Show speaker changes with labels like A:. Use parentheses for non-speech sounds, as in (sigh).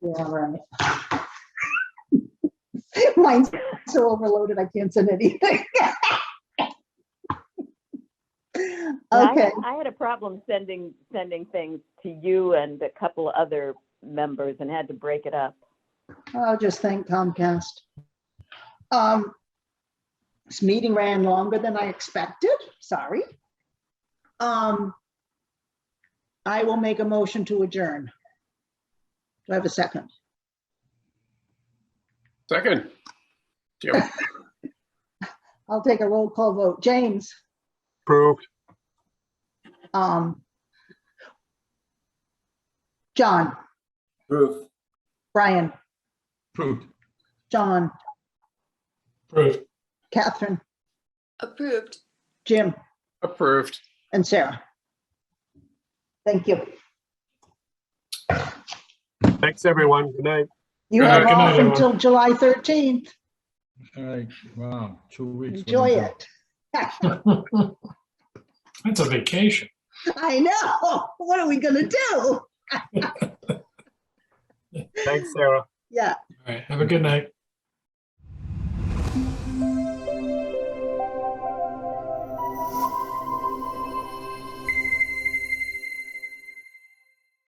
A: Yeah, right. (laughs) Mine's so overloaded, I can't send anything. (laughs)
B: And I
A: Okay,
B: had- I had a problem sending, sending things to you and a couple other members and had to break it up.
A: I'll just thank Comcast. Um, This meeting ran longer than I expected, sorry. Um, I will make a motion to adjourn. Do I have a second?
C: Second. Jim,
A: I'll take a roll call vote. James?
D: Approved.
A: Um. John? Approved. Brian,
D: Approved.
A: John,
D: Approved.
A: Catherine,
E: Approved.
A: Jim,
C: approved.
A: and Sarah. Thank you.
D: Thanks, everyone. Good night.
A: You
C: Uh,
A: have
C: good night,
A: off
C: everyone.
A: until July 13th.
F: All right, wow, two weeks. what do you
A: Enjoy
F: think?
A: it.
G: That's a vacation.
A: (laughs) I know. What are we gonna do?
D: Thanks, Sarah.
A: Yeah,
G: All right. Have a good night.